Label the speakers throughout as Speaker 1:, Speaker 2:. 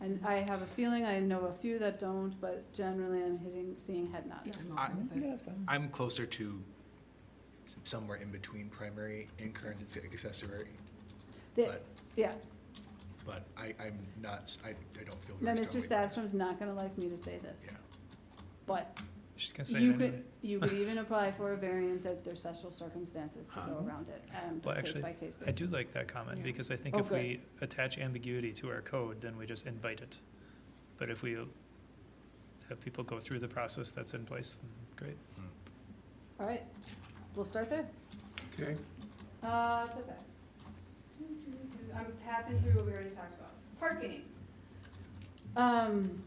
Speaker 1: And I have a feeling I know a few that don't, but generally I'm hitting, seeing head nods.
Speaker 2: I'm
Speaker 3: I-
Speaker 2: okay with it.
Speaker 4: that's fine.
Speaker 3: I'm closer to s- somewhere in between primary and current ac- accessory,
Speaker 1: The-
Speaker 3: but,
Speaker 1: Yeah,
Speaker 3: but I, I'm not, s- I, I don't feel
Speaker 1: now,
Speaker 3: very
Speaker 1: Mr.
Speaker 3: strongly.
Speaker 1: Sastrom's not gonna like me to say this.
Speaker 3: Yeah.
Speaker 1: But
Speaker 5: She's gonna say it
Speaker 1: you
Speaker 5: anyway.
Speaker 1: could, you could even apply for a variance if there's special circumstances to go
Speaker 3: Um,
Speaker 1: around it, and
Speaker 5: Well,
Speaker 1: case
Speaker 5: actually,
Speaker 1: by case basis.
Speaker 5: I do like that comment,
Speaker 2: Yeah.
Speaker 5: because I think
Speaker 1: Oh,
Speaker 5: if
Speaker 1: good.
Speaker 5: we attach ambiguity to our code, then we just invite it. But if we have people go through the process that's in place, then great.
Speaker 1: All right, we'll start there.
Speaker 4: Okay.
Speaker 1: Uh, setbacks. I'm passing through what we already talked about. Parking. Um,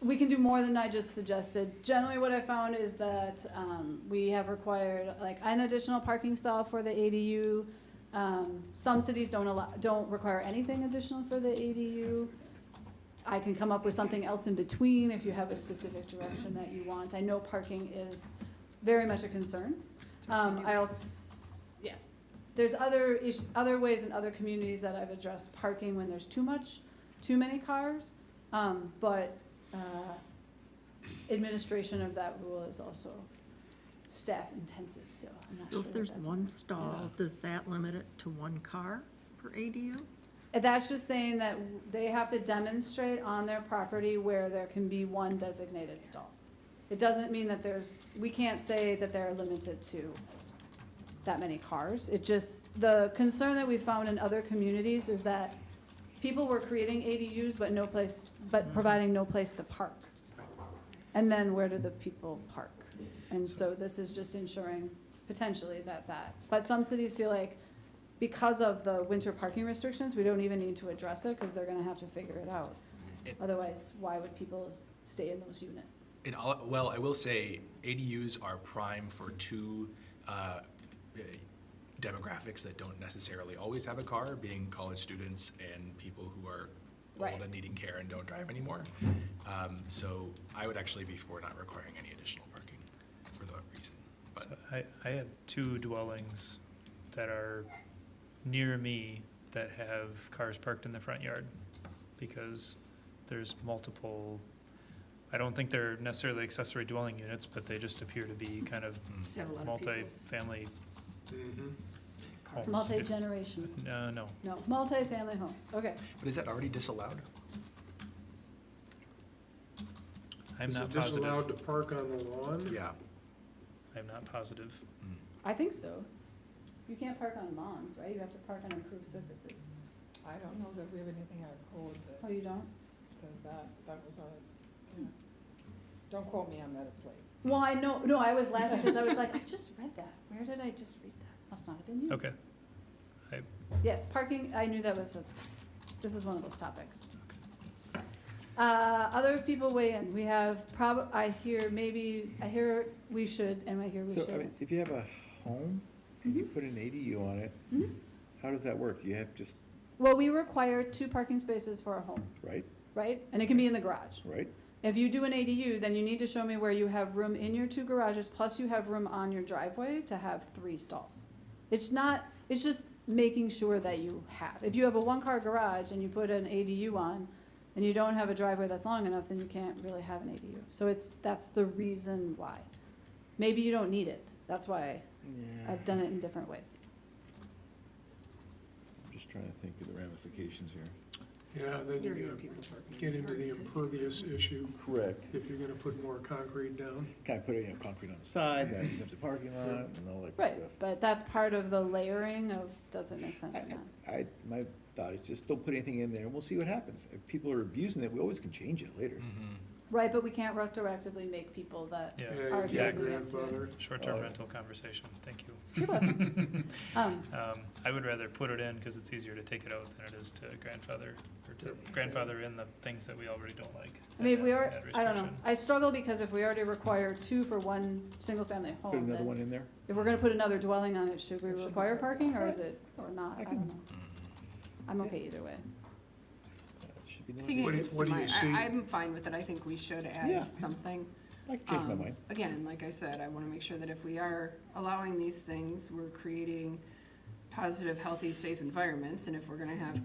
Speaker 1: we can do more than I just suggested. Generally, what I found is that, um, we have required like an additional parking stall for the ADU. Um, some cities don't allow, don't require anything additional for the ADU. I can come up with something else in between if you have a specific direction that you want. I know parking is very much a concern. Um, I also, yeah, there's other ish, other ways in other communities that I've addressed parking when there's too much, too many cars. Um, but, uh, administration of that rule is also staff intensive, so I'm not
Speaker 2: So
Speaker 1: sure
Speaker 2: if
Speaker 1: that
Speaker 2: there's
Speaker 1: that's-
Speaker 2: one stall, does that limit it to one car per ADU?
Speaker 1: And That's just saying that they have to demonstrate on their property where there can be one designated stall. It doesn't mean that there's, we can't say that they're limited to that many cars. It just, the concern that we found in other communities is that people were creating ADUs but no place, but providing no place to park. And then where do the people park? And so this is just ensuring potentially that that, but some cities feel like because of the winter parking restrictions, we don't even need to address it because they're gonna have to figure it out.
Speaker 3: It-
Speaker 1: Otherwise, why would people stay in those units?
Speaker 3: And all, well, I will say ADUs are prime for two uh, eh, demographics that don't necessarily always have a car, being college students and people who are
Speaker 1: Right.
Speaker 3: old and needing care and don't drive anymore. Um, So I would actually be for not requiring any additional parking for that reason. But
Speaker 5: So I, I have two dwellings that are near me that have cars parked in the front yard because there's multiple, I don't think they're necessarily accessory dwelling units, but they just appear to be kind of
Speaker 3: mm,
Speaker 5: multi-family homes.
Speaker 1: Multi-generation,
Speaker 5: No, no,
Speaker 1: no, multi-family homes, okay.
Speaker 3: but is that already disallowed?
Speaker 5: I'm
Speaker 6: Is
Speaker 5: not
Speaker 6: it disallowed
Speaker 5: positive.
Speaker 6: to park on the lawn?
Speaker 3: Yeah.
Speaker 5: I'm not positive.
Speaker 3: Mm.
Speaker 1: I think so. You can't park on lawns, right? You have to park on improved surfaces.
Speaker 7: I don't know that we have anything in our code
Speaker 1: Oh,
Speaker 7: that
Speaker 1: you don't?
Speaker 7: says that, that was our, yeah. Don't quote me on that, it's late.
Speaker 1: Well, I know, no, I was laughing because I was like, I just read that. Where did I just read that? Must not have been you.
Speaker 5: Okay.
Speaker 1: Yes, parking, I knew that was a, this is one of those topics. Uh, other people weigh in, we have prob, I hear maybe, I hear we should, and I hear we
Speaker 4: So, I mean,
Speaker 1: shouldn't. Mm-hmm.
Speaker 4: if you have a home and you put an ADU on it,
Speaker 1: Mhm.
Speaker 4: how does that work? You have just,
Speaker 1: Well, we require two parking spaces for a home,
Speaker 4: right,
Speaker 1: right? And it can be in the garage.
Speaker 4: right?
Speaker 1: If you do an ADU, then you need to show me where you have room in your two garages, plus you have room on your driveway to have three stalls. It's not, it's just making sure that you have. If you have a one-car garage and you put an ADU on, and you don't have a driveway that's long enough, then you can't really have an ADU. So it's, that's the reason why. Maybe you don't need it, that's why I've done it in different ways.
Speaker 4: I'm Just trying to think of the ramifications here.
Speaker 6: Yeah, then
Speaker 2: You're gonna
Speaker 6: you're gonna
Speaker 2: people parking.
Speaker 6: get into the impervious issue
Speaker 4: Correct.
Speaker 6: if you're gonna put more concrete down.
Speaker 4: Kind of put, you know, concrete on the side, that becomes a parking lot and all that
Speaker 1: Right,
Speaker 4: good stuff.
Speaker 1: but that's part of the layering of, does it make sense or not?
Speaker 4: I, my thought is just don't put anything in there and we'll see what happens. If people are abusing it, we always can change it later.
Speaker 3: Mhm.
Speaker 1: Right, but we can't retroactively make people that
Speaker 5: Yeah,
Speaker 6: Yeah,
Speaker 1: Our
Speaker 6: you can't
Speaker 5: exactly.
Speaker 6: grandfather.
Speaker 5: short-term
Speaker 4: Oh.
Speaker 5: rental conversation, thank you.
Speaker 1: people. Um,
Speaker 5: Um, I would rather put it in because it's easier to take it out than it is to grandfather, or to grandfather in the things that we already don't like.
Speaker 1: I mean, if
Speaker 5: and
Speaker 1: we
Speaker 5: that-
Speaker 1: are,
Speaker 5: that
Speaker 1: I don't know,
Speaker 5: restriction.
Speaker 1: I struggle because if we already require two for one single-family
Speaker 4: Put
Speaker 1: home,
Speaker 4: another one
Speaker 1: then
Speaker 4: in there.
Speaker 1: if we're gonna put another dwelling on it, should we
Speaker 2: It should be
Speaker 1: require
Speaker 2: part-
Speaker 1: parking, or is it, or not, I
Speaker 4: I
Speaker 1: don't know.
Speaker 3: Mhm.
Speaker 1: I'm okay either way.
Speaker 4: Uh, it should be no
Speaker 3: I
Speaker 4: idea.
Speaker 3: think
Speaker 6: What do- what do you see?
Speaker 7: I, I'm fine with it, I think we should
Speaker 4: Yeah.
Speaker 7: add something.
Speaker 4: I can change my
Speaker 7: Um,
Speaker 4: mind.
Speaker 7: Again, like I said, I wanna make sure that if we are allowing these things, we're creating positive, healthy, safe environments, and if we're gonna have